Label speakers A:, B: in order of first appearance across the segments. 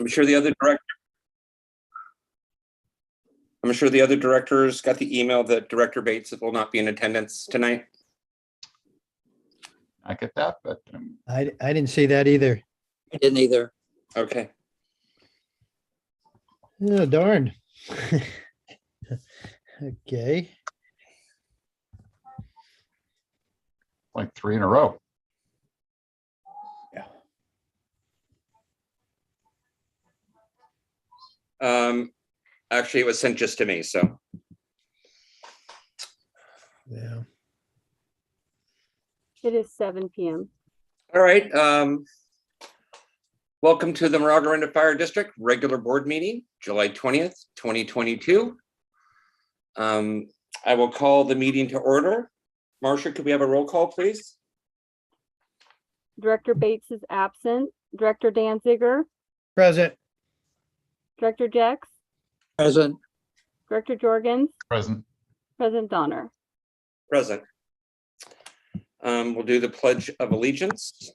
A: I'm sure the other director. I'm sure the other directors got the email that Director Bates will not be in attendance tonight.
B: I get that, but um,
C: I, I didn't see that either.
D: I didn't either.
A: Okay,
C: Oh, darn. Okay,
B: like three in a row.
A: um, actually, it was sent just to me, so,
C: yeah.
E: It is seven PM.
A: all right, um. Welcome to the Maraga Maragarinda Fire District Regular Board Meeting, July twentieth, twenty twenty-two. Um, I will call the meeting to order. Marcia, could we have a roll call, please?
E: Director Bates is absent. Director Danziger,
C: Present,
E: Director Jex,
D: Present,
E: Director Jorgens,
B: Present.
E: President Donner.
A: Present. Um, we'll do the pledge of allegiance.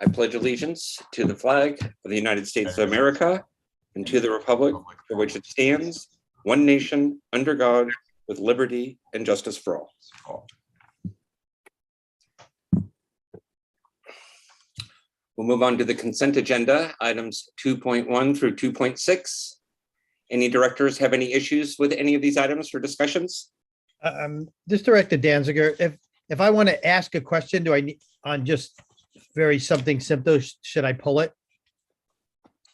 A: I pledge allegiance to the flag of the United States of America and to the republic for which it stands, one nation, under God, with liberty and justice for all. We'll move on to the consent agenda, items two point one through two point six. Any directors have any issues with any of these items for discussions?
C: um, this Director Danziger, if, if I want to ask a question, do I need, on just very something simple, sh- should I pull it?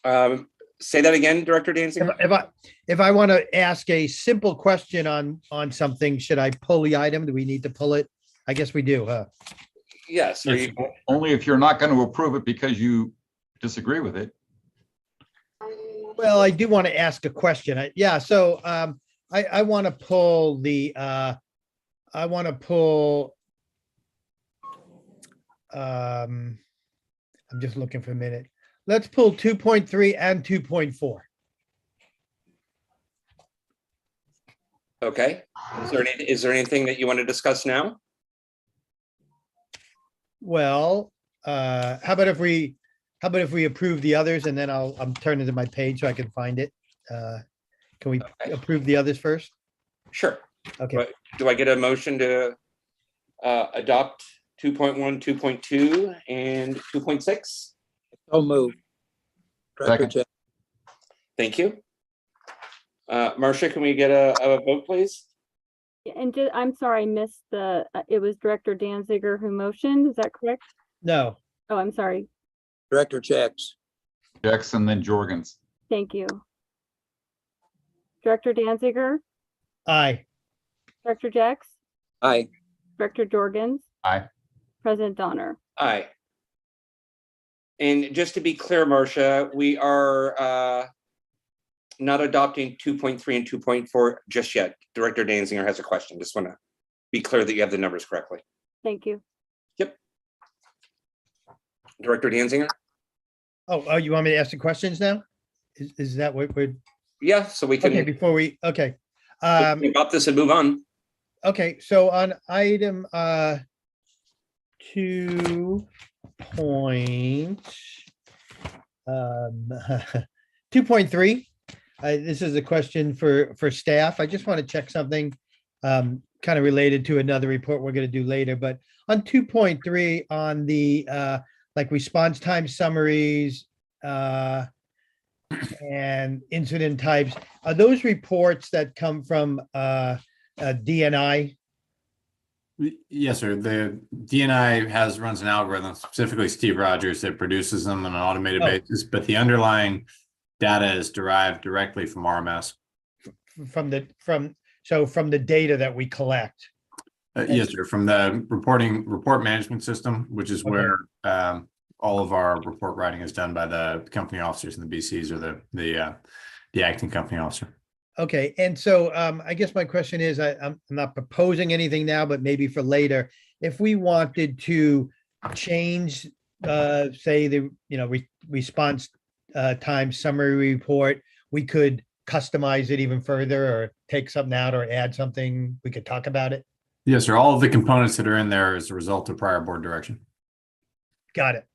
A: Um, say that again, Director
C: If
A: Danziger?
C: if I, if I want to ask a simple question on, on something, should I pull the item? Do we need to pull it? I guess we do, huh?
A: Yes, are you-
B: Only if you're not going to approve it because you disagree with it.
C: Well, I do want to ask a question. I- Yeah, so um, I, I want to pull the, uh, I want to pull. um, I'm just looking for a minute. Let's pull two point three and two point four.
A: okay. Is there any, is there anything that you want to discuss now?
C: Well, uh, how about if we, how about if we approve the others and then I'll, I'm turning to my page so I can find it. Uh, Can we
A: Okay.
C: approve the others first?
A: Sure.
C: Okay.
A: Right. Do I get a motion to uh, adopt 2.1, 2.2, and 2.6?
D: so moved. Director
B: Second.
D: Jeff,
A: Thank you. Uh, Marcia, can we get a a vote, please?
E: And ju- I'm sorry, I missed the, uh, it was Director Danziger who motioned. Is that correct?
C: No,
E: Oh, I'm sorry.
D: Director Jex,
B: Jackson, then Jorgens.
E: Thank you. Director Danziger,
C: aye.
E: Director Jex,
D: aye.
E: Director Jorgens,
B: Aye.
E: President Donner.
A: Aye. And just to be clear, Marcia, we are uh, not adopting 2.3 and 2.4 just yet. Director Danzinger has a question. Just want to be clear that you have the numbers correctly.
E: Thank you.
A: Director Danzinger?
C: Oh, oh, you want me to ask the questions now? Is, is that what we're,
A: Yeah, so we
C: okay,
A: can
C: before we, okay. Um,
A: adopt this and move on.
C: okay, so on item, uh, two point, um, two point three. Uh, this is a question for, for staff. I just want to check something, um, kind of related to another report we're going to do later, but on two point three, on the, uh, like response time summaries, uh, and incident types, are those reports that come from, uh, uh, DNI.
F: Y- Yes, sir. The DNI has, runs an algorithm, specifically Steve Rogers, that produces them on an automated
C: Oh.
F: basis, but the underlying data is derived directly from RMS.
C: from the, from, so from the data that we collect.
F: Uh, Yes, sir, from the reporting, report management system, which is
C: Okay.
F: where um, all of our report writing is done by the company officers and the BCs or the, the, uh, the acting company officer.
C: Okay, and so um, I guess my question is, I, I'm I'm not proposing anything now, but maybe for later. If we wanted to change, uh, say the, you know, re- response uh, time summary report, we could customize it even further or take something out or add something. We could talk about it.
F: Yes, sir. All of the components that are in there is a result of prior board direction.
C: Got it.